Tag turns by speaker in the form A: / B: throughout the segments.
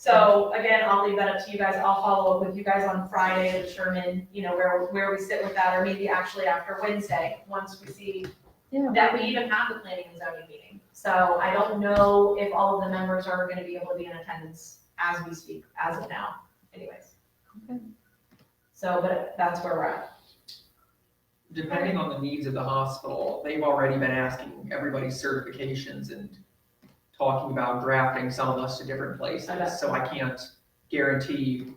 A: So again, I'll leave that up to you guys. I'll follow up with you guys on Friday to determine, you know, where, where we sit with that, or maybe actually after Wednesday, once we see
B: Yeah.
A: that we even have the planning and zoning meeting. So I don't know if all of the members are gonna be able to be in attendance as we speak, as of now, anyways.
B: Okay.
A: So, but that's where we're at.
C: depending on the needs of the hospital, they've already been asking everybody's certifications and talking about drafting some of us to different
A: Okay.
C: places, so I can't guarantee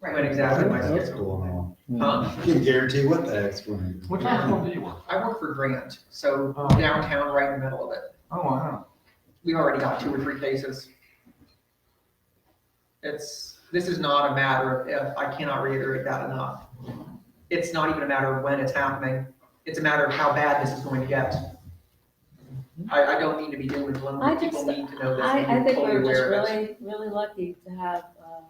C: when
A: Right.
C: exactly my
D: What the heck's
C: schedule.
D: going on?
C: Huh?
D: I can guarantee what the heck's going
E: Which
D: on.
E: hospital do you work?
C: I work for Grant, so
E: Oh.
C: downtown, right in the middle of it.
E: Oh, wow.
C: We've already got two or three cases. It's, this is not a matter of if, I cannot reiterate that enough. It's not even a matter of when it's happening, it's a matter of how bad this is going to get. I, I don't mean to be doom and gloom,
B: I
C: but people
B: just-
C: need to know this. and
B: I, I
C: be
B: think
C: fully
B: we're just
C: aware of it.
B: really, really lucky to have uh,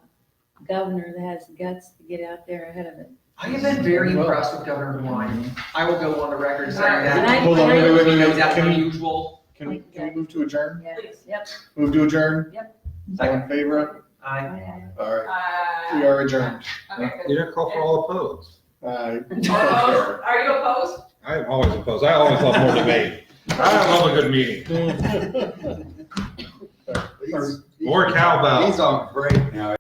B: a governor that has guts to get out there ahead of it.
C: I have been very impressed with Governor DeWine. I will go on the record saying
B: And
C: that.
B: I-
F: Hold on,
B: and I-
F: wait, wait, wait,
C: He
F: wait,
C: knows that's
F: can we,
C: unusual.
F: can we, can we move to adjourn?
B: Yeah,
A: Please.
B: Yep.
F: Move to adjourn?
B: Yep.
F: All in favor?
C: I,
B: I-
F: All right, we
A: Uh,
F: are adjourned.
A: okay, good.
D: didn't call
A: for
D: all opposed.
F: Uh,
A: Opposed? Are you opposed?
D: I am always opposed. I always love more debate. I love a good meeting.
F: please.
D: More cowbell. He's on break now.